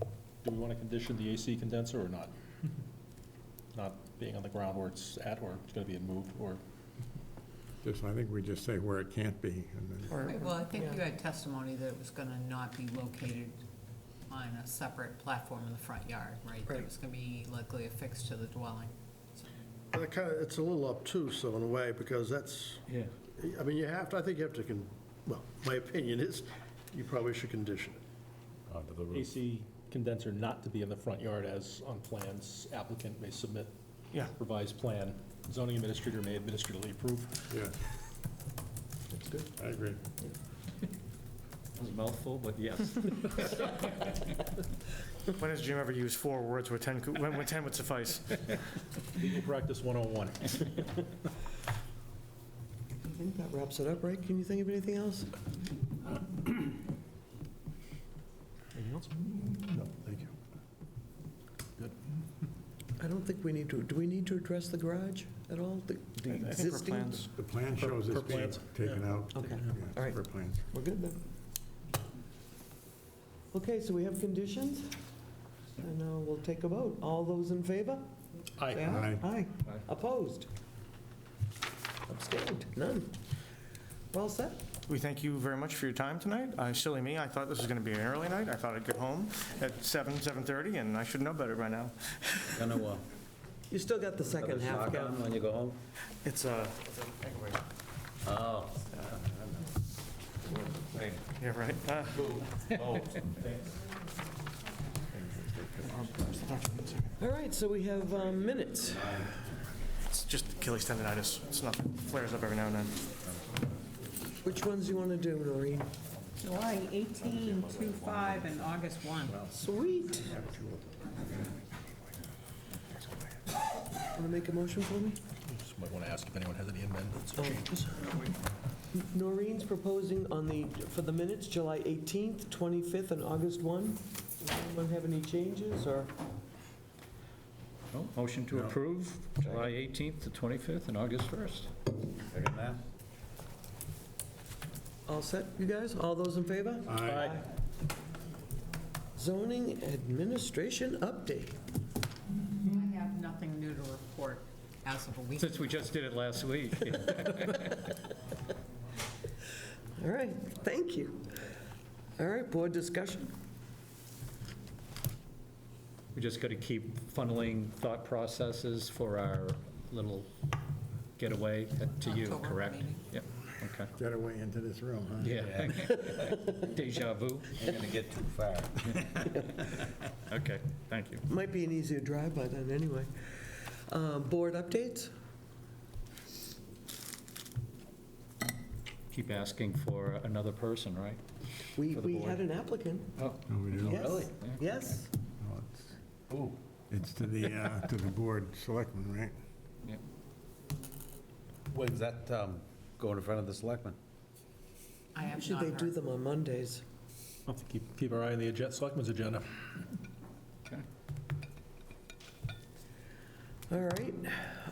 do we want to condition the AC condenser or not? Not being on the ground where it's at, or it's gonna be moved, or, Just, I think we just say where it can't be, and then, Or- Right, Well, I think you yeah. had testimony that it was gonna not be located on a separate platform in the front yard, right? That It Right. was gonna be likely affixed to the dwelling. So, That kind of, it's a little obtuse, though, in a way, because that's, Yeah. I mean, you have to, I think you have to, con- well, my opinion is, you probably should condition it. onto the roof. AC condenser not to be in the front yard as on plans applicant may submit Yeah. revised plan, zoning administrator may administratively approve. yeah, That's good. I agree. It was a mouthful, but yes. When has Jim ever used four words where 10, could- when when 10 would suffice? Legal practice 101. I think that wraps it up, right? Can you think of anything else? Anything else? No, thank you. I don't think we need to, do we need to address the garage at all? The the I think for existing? plans, The plan shows per it's being plans, taken out. Okay, Yeah, all right. Per plans. We're good then. Okay, so we have conditions, and uh, we'll take a vote. All those in favor? Aye. Say aye. Aye. Aye. Aye. Opposed? Abstained? None? Well said. We thank you very much for your time tonight. Uh, Silly me, I thought this was going to be an early night. I thought I'd get home at 7, 7:30, and I should know better by now. gonna, uh, You still got the second put a half, sock Kev. on when you go home? It's uh, a... Oh. Yeah, right. Uh, All right, so we have uh, minutes. It's just Achilles tendonitis. It's nothing. Flares up every now and then. Which ones do you want to do, Noreen? July 18, 25, and August 1. Sweet. Want to make a motion for me? Just might want to ask if anyone has any amendments Oh. or changes. Noreen's proposing on the, for the minutes, July 18th, 25th, and August 1. Does anyone have any changes, or? No, Oh, Motion to approve July 18th to 25th and August 1st. Second that. All set, you guys? All those in favor? Aye. Zoning administration update. I have nothing new to report as of a week. Since we just did it last week. All right, thank you. All right, board discussion. We just got to keep funneling thought processes for our little getaway to you, October correct? meeting. Yep, okay. Get away into this room, huh? Yeah. Deja vu. You're going to get too far. Okay, thank you. Might be an easier drive by then, anyway. Uh, Board updates? Keep asking for another person, right? We, For the we board. had an applicant. Oh, No, we do. Yes. really? Yes. No, it's- It's to the, uh, to the board selectmen, right? When's that um, going in front of the selectmen? I have Should not they do heard. them on Mondays? Have to keep, keep our eye on the agenda, selectmen's agenda. All right.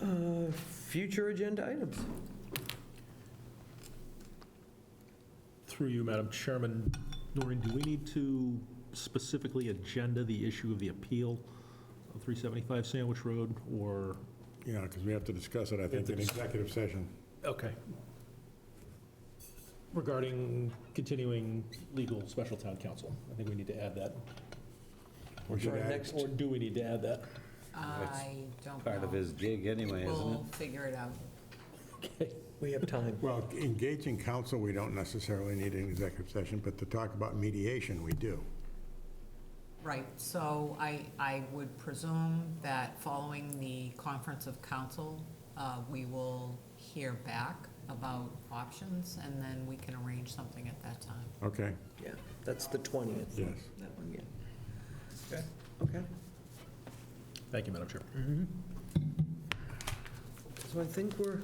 Uh, Future agenda items. Through you, Madam Chairman, Noreen, do we need to specifically agenda the issue of the appeal of 375 Sandwich Road, or? Yeah, because we have to discuss it, I think, in executive session. Okay. Regarding continuing legal special town council, I think we need to add that. We should For our add- next- Or do we need to add that? I don't know. Part of his gig anyway, isn't it? We'll figure it out. Okay. We have time. Well, engaging counsel, we don't necessarily need an executive session, but to talk about mediation, we do. Right, so I, I would presume that following the conference of council, uh, we will hear back about options, and then we can arrange something at that time. Okay, Yeah, that's the 20th. yes. That one, yeah. Okay. Okay. Thank you, Madam Chair. So I think we're,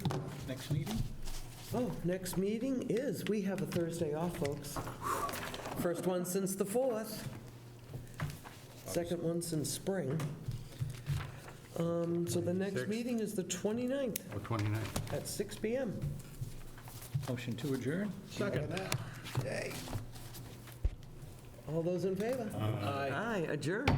Next meeting? oh, next meeting is, we have a Thursday off, folks. First one since the 4th. Second one since spring. Um, So the next 26th. meeting is the 29th Or 29. at 6 PM. Motion to adjourn? All those in favor? Aye. Aye, adjourned.